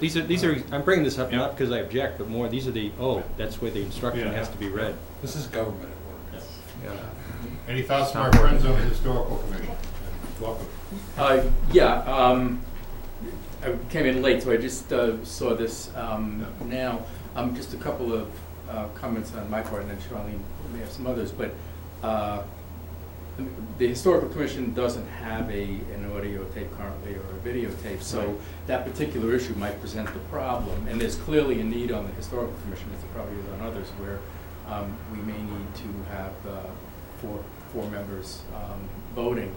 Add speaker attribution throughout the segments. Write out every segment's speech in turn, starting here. Speaker 1: These are, these are, I'm bringing this up
Speaker 2: Yeah.
Speaker 1: not because I object, but more, these are the, oh, that's where the instruction
Speaker 2: Yeah.
Speaker 1: has to be read.
Speaker 3: This is government at work. Yeah.
Speaker 4: Any thoughts from our friends on the historical committee? Welcome.
Speaker 5: Uh, Yeah, um, I came in late, so I just uh, saw this um, now. Um, Just a couple of uh, comments on my part, and then Charlene may have some others, but uh, the Historical Commission doesn't have a, an audio tape currently or a videotape, so that particular issue might present the problem. And there's clearly a need on the Historical Commission, as there probably is on others, where um, we may need to have uh, four, four members um, voting.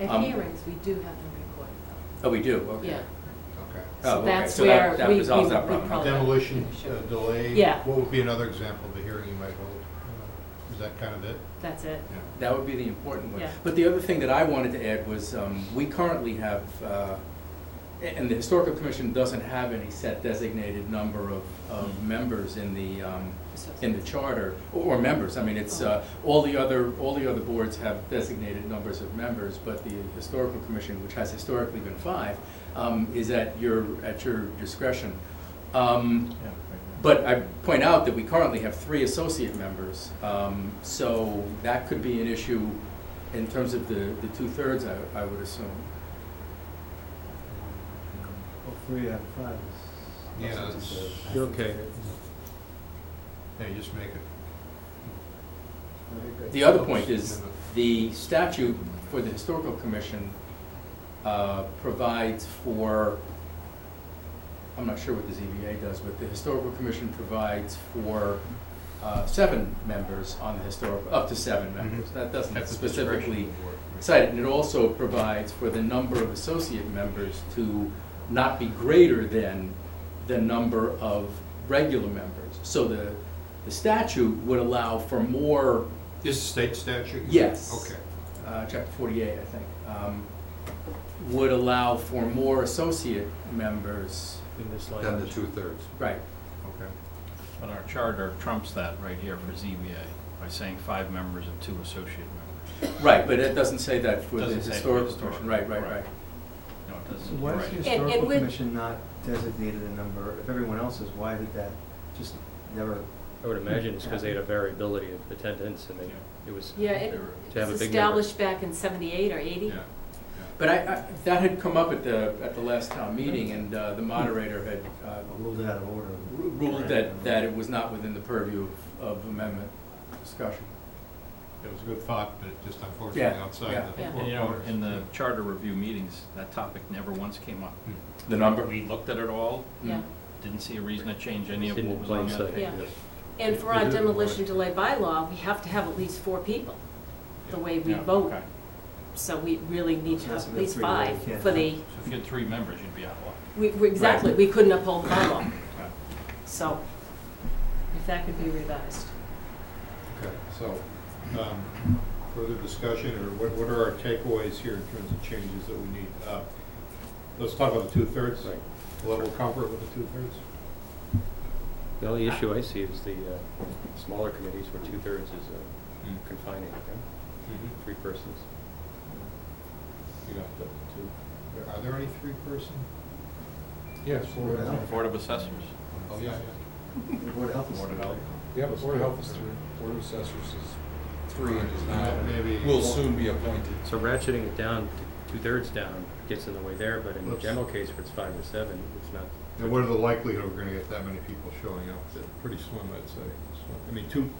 Speaker 6: At
Speaker 5: Um,
Speaker 6: hearings, we do have them recorded though.
Speaker 5: Oh, we do, okay.
Speaker 6: Yeah.
Speaker 4: Okay.
Speaker 6: So
Speaker 5: Oh, okay.
Speaker 6: that's
Speaker 5: So that-
Speaker 6: where
Speaker 5: that
Speaker 6: we-
Speaker 5: resolves
Speaker 6: we-
Speaker 5: that
Speaker 6: we
Speaker 5: problem.
Speaker 6: probably-
Speaker 4: Demolition
Speaker 6: Oh, Sure.
Speaker 4: uh, delay?
Speaker 6: Yeah.
Speaker 4: What would be another example of the hearing you might hold? Is that kind of it?
Speaker 6: That's it.
Speaker 4: Yeah.
Speaker 5: That would be the important one.
Speaker 6: Yeah.
Speaker 5: But the other thing that I wanted to add was, um, we currently have, uh, a- and the Historical Commission doesn't have any set designated number of, of members in the, um, in the charter, or or members, I mean, it's, uh, all the other, all the other boards have designated numbers of members, but the Historical Commission, which has historically been five, um, is at your, at your discretion. Um, But I point out that we currently have three associate members, um, so that could be an issue in terms of the, the two-thirds, I, I would assume.
Speaker 7: Hopefully we have five. is-
Speaker 4: Yeah, that's-
Speaker 1: You're okay.
Speaker 4: Yeah, you just make it.
Speaker 7: Very good.
Speaker 5: The other point is, the statute for the Historical Commission uh, provides for, I'm not sure what the ZBA does, but the Historical Commission provides for uh, seven members on the historic, up to seven members. That doesn't
Speaker 4: That's the discretion of the
Speaker 5: specifically
Speaker 4: board, right?
Speaker 5: cited, and it also provides for the number of associate members to not be greater than the number of regular members. So the, the statute would allow for more
Speaker 4: This is state statute?
Speaker 5: Yes.
Speaker 4: Okay.
Speaker 5: uh, chapter 48, I think, um, would allow for more associate members,
Speaker 2: In this
Speaker 3: Then the two-thirds.
Speaker 5: right,
Speaker 4: Okay.
Speaker 2: But our charter trumps that right here for ZBA by saying five members and two associate members.
Speaker 5: right, but it doesn't say that for the
Speaker 2: Doesn't say for
Speaker 5: historical
Speaker 2: historical,
Speaker 5: commission, right, right,
Speaker 2: right.
Speaker 5: right.
Speaker 2: No, it
Speaker 7: So
Speaker 2: doesn't,
Speaker 7: why is the
Speaker 2: right.
Speaker 6: it
Speaker 7: historical
Speaker 6: would-
Speaker 7: commission not designated a number? If everyone else is, why did that just never?
Speaker 1: I would imagine it's because they had a variability of attendance and they,
Speaker 2: Yeah.
Speaker 1: it was,
Speaker 6: Yeah, it
Speaker 2: To
Speaker 6: it
Speaker 1: have a
Speaker 6: was
Speaker 1: big number.
Speaker 6: established back in seventy-eight or eighty.
Speaker 4: Yeah.
Speaker 5: But I, I, that had come up at the, at the last town meeting, and uh, the moderator had uh,
Speaker 7: Ruled it out of order.
Speaker 5: ru- ruled that, that it was not within the purview of of amendment discussion.
Speaker 4: It was a good thought, but it just unfortunately
Speaker 5: Yeah,
Speaker 4: outside
Speaker 5: yeah.
Speaker 4: the.
Speaker 6: Yeah.
Speaker 2: And, you know,
Speaker 4: four
Speaker 2: in the
Speaker 4: corners.
Speaker 2: charter review meetings, that topic never once came up.
Speaker 4: Hmm.
Speaker 5: The number?
Speaker 2: We looked at it all,
Speaker 5: Mm.
Speaker 6: Yeah.
Speaker 2: didn't see a reason to change any of
Speaker 1: Didn't
Speaker 2: what was on
Speaker 1: plain
Speaker 2: the
Speaker 1: sight.
Speaker 2: page.
Speaker 6: Yeah. And for our demolition delay bylaw, we have to have at least four people, the way we
Speaker 2: Yeah,
Speaker 6: vote.
Speaker 2: okay.
Speaker 6: So we really need to
Speaker 7: That's
Speaker 6: have at
Speaker 7: the
Speaker 6: least
Speaker 7: three that we
Speaker 6: five
Speaker 7: can't
Speaker 6: for
Speaker 7: have.
Speaker 6: the,
Speaker 2: So if you had three members, you'd be out of luck.
Speaker 6: we, we- exactly, we couldn't uphold the bylaw.
Speaker 2: Yeah.
Speaker 6: So, if that could be revised.
Speaker 4: Okay, so, um, further discussion, or what, what are our takeaways here in terms of changes that we need? Uh, Let's talk about the two-thirds, like, level of comfort with the two-thirds?
Speaker 1: the only issue I see is the uh, smaller committees where two-thirds is uh,
Speaker 2: Hmm.
Speaker 1: confining, okay?
Speaker 4: You
Speaker 1: three persons.
Speaker 4: Mm-hmm. got the two. Are there any three-person?
Speaker 3: Yes.
Speaker 7: Board of Health.
Speaker 2: Board of Assessors.
Speaker 4: Oh, yeah, yeah.
Speaker 7: The Board of Health. is-
Speaker 2: Board of Health.
Speaker 3: Yeah, but Board of Health is three, Board of Assessors is three and is now,
Speaker 4: Maybe-
Speaker 3: will soon be appointed.
Speaker 1: So ratcheting it down, to two-thirds down gets in the way there, but in the
Speaker 4: Let's-
Speaker 1: general case where it's five or seven, it's not.
Speaker 4: And what are the likelihood we're gonna get that many people showing up? It's Pretty slim, I'd say. I mean, two,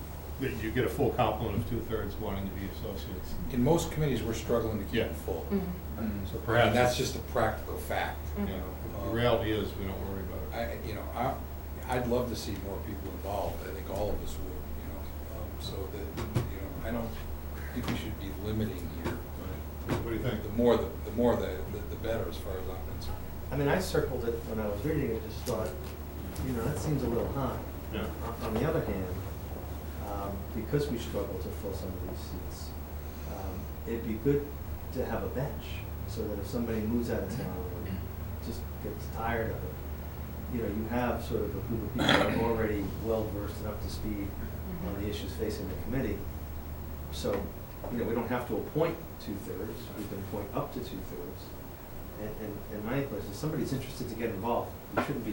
Speaker 4: you get a full complement of two-thirds wanting to be associates.
Speaker 3: In most committees, we're struggling to keep
Speaker 4: Yeah.
Speaker 3: it full.
Speaker 6: Mm-hmm.
Speaker 4: So
Speaker 3: And
Speaker 4: perhaps,
Speaker 3: that's just a practical fact.
Speaker 4: you know, the reality is, we don't worry about it.
Speaker 3: I, you know, I, I'd love to see more people involved, I think all of us would, you know, um, so that, you know, I don't think we should be limiting here.
Speaker 4: What do you think?
Speaker 3: The more, the the more the, the- the better, as far as I'm concerned.
Speaker 7: I mean, I circled it when I was reading it, just thought, you know, that seems a little high.
Speaker 4: Yeah.
Speaker 7: On- On the other hand, um, because we struggle to fill some of these seats, um, it'd be good to have a bench, so that if somebody moves out of town and just gets tired of it, you know, you have sort of a group of people that are already well-versed and up to speed on the issues facing the committee. So, you know, we don't have to appoint two-thirds, we can appoint up to two-thirds. And, and, and my question is, if somebody's interested to get involved, we shouldn't be